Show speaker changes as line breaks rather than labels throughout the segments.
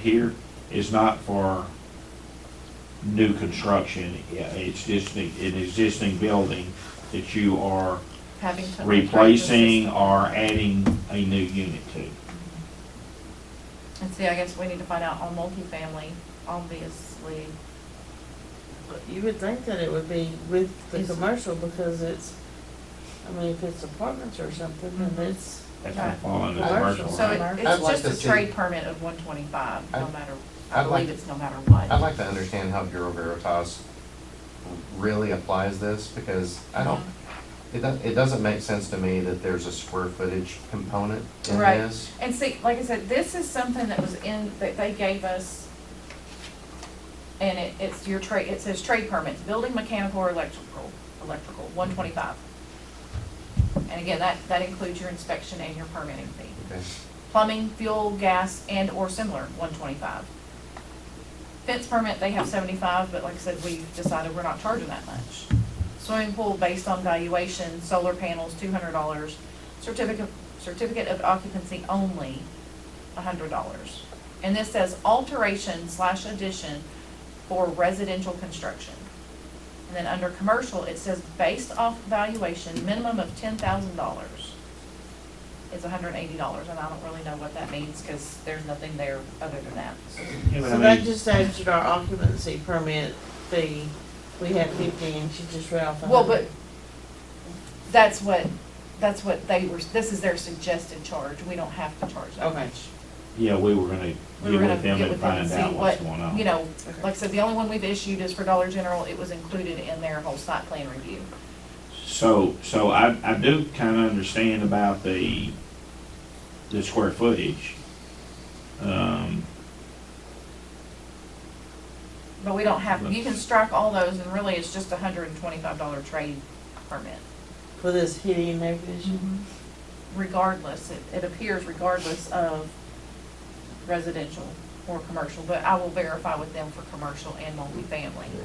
here is not for new construction. Yeah, It's just the- an existing building that you are
having to.
replacing or adding a new unit to.
And see, I guess we need to find out on multifamily, obviously.
You would think that it would be with the
Is-
commercial because it's, I mean, if it's apartments or something, then
Mhm.
it's,
That's not falling under
Commercial.
commercial.
So
right?
it-
I'd
it's
like
just
to
a
see-
trade permit of one twenty-five, no
I'd-
matter,
I'd
I
like-
believe it's no matter what.
I'd like to understand how Bureau Veritas really applies this, because I don't, it doesn't, it doesn't make sense to me that there's a square footage component in
Right.
this.
And see, like I said, this is something that was in, that they gave us. And it, it's your trade, it says trade permits, building mechanical or electrical, electrical, one twenty-five. And again, that, that includes your inspection and your permitting fee.
Okay.
Plumbing, fuel, gas, and/or similar, one twenty-five. Fence permit, they have seventy-five, but like I said, we decided we're not charging that much. Swimming pool, based on valuation, solar panels, two hundred dollars. Certificate, certificate of occupancy only, hundred dollars. And this says alteration slash addition for residential construction. And then under commercial, it says based off valuation, minimum of ten thousand dollars is hundred and eighty dollars, and I don't really know what that means, because there's nothing there other than that.
Yeah, but I
so that
mean,
just adds to our occupancy permit fee. We had fifty and she just read off a
Well, but
hundred.
that's what, that's what they were, this is their suggested charge, we don't have to charge that
Okay.
much.
Yeah, we were gonna
We
get
were gonna
with them
get
and
with them
find
and see
out
what,
what's going on.
You know,
Okay.
like I said, the only one we've issued is for Dollar General, it was included in their whole site plan review.
So, so I, I do kinda understand about the, the square footage. Um,
But we don't have, you can strike all those, and really, it's just a hundred and twenty-five dollar trade permit.
For this heating and air conditioning.
Regardless, it, it appears regardless of residential or commercial, but I will verify with them for commercial and multifamily.
Yeah.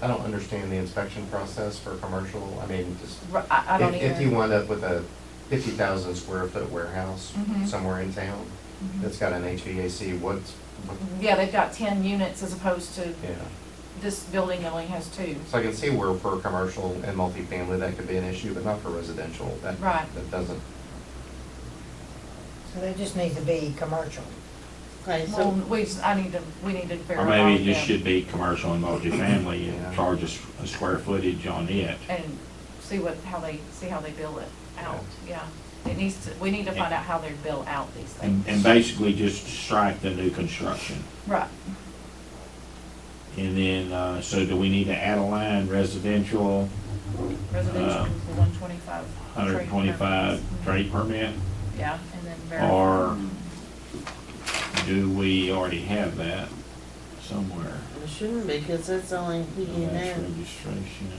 I don't understand the inspection process for commercial, I mean, just,
R- I, I don't
if, if you
either.
wind up with a fifty thousand square foot warehouse
Mhm.
somewhere in town,
Mm-hmm.
that's got an HVAC, what's, what,
Yeah, they've got ten units as opposed to
yeah.
this building only has two.
So I can see where for commercial and multifamily, that could be an issue, but not for residential, that,
Right.
that doesn't.
So there just needs to be commercial.
Okay,
Mm-hmm. Well,
so,
we, just- I need to, we need to
Or
verify.
maybe it
with
just
them
should be commercial and multifamily
Yeah.
and charge us a square footage on it.
And see what, how they, see how they bill it out, yeah. It needs to, we need to find
And-
out how they bill out these
And, and
things.
basically just strike the new construction.
Right,
And then, uh, so do we need to add a line residential,
residential
Um,
is the one twenty-five.
hundred and twenty-five trade permit?
Yeah, and then verify.
Or do we already have that somewhere?
it shouldn't be, cause that's only heating and
That's
air.
registration.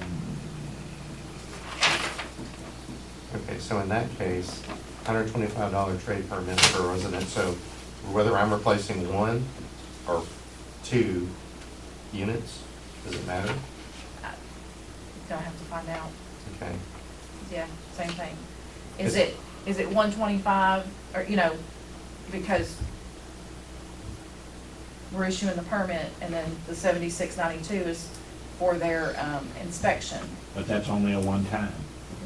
Okay, so in that case, hundred twenty-five dollar trade permit for a resident, so whether I'm replacing one or two units, does it matter?
Gonna have to find out,
Okay,
yeah, same thing. Is it, is it one twenty-five, or, you know, because we're issuing the permit, and then the seventy-six ninety-two is for their, um, inspection.
But that's only a one-time.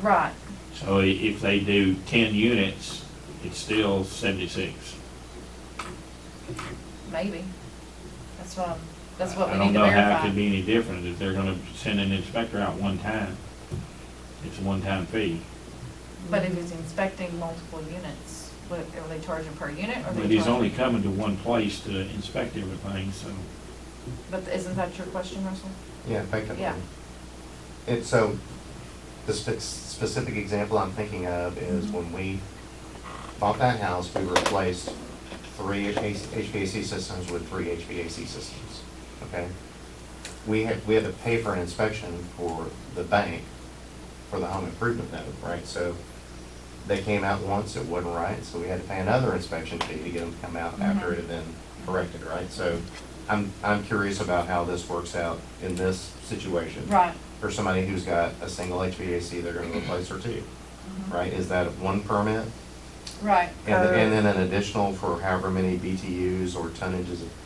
Right,
So i- if they do ten units, it's still seventy-six.
maybe. That's what, I'm- that's what we
I
need to
don't know how it could
verify.
be any different if they're gonna send an inspector out one time. It's a one-time fee.
But if he's inspecting multiple units, what, are they charging per unit, or are they
But he's
charging-
only coming to one place to inspect everything, so.
But isn't that your question, Russell?
yeah, effectively.
Yeah.
And so, the spe- specific example I'm thinking of is when we bought that house, we replaced three HVAC systems with three HVAC systems, okay? We had, we had to pay for an inspection for the bank, for the home improvement note, right? So they came out once, it wasn't right, so we had to pay another inspection fee to get them to come out after it had been corrected, right? So I'm, I'm curious about how this works out in this situation
Right,
for somebody who's got a single HVAC, they're gonna replace or two, right? Is that one permit
Right.
And, and then an additional for however many BTUs or tonnages of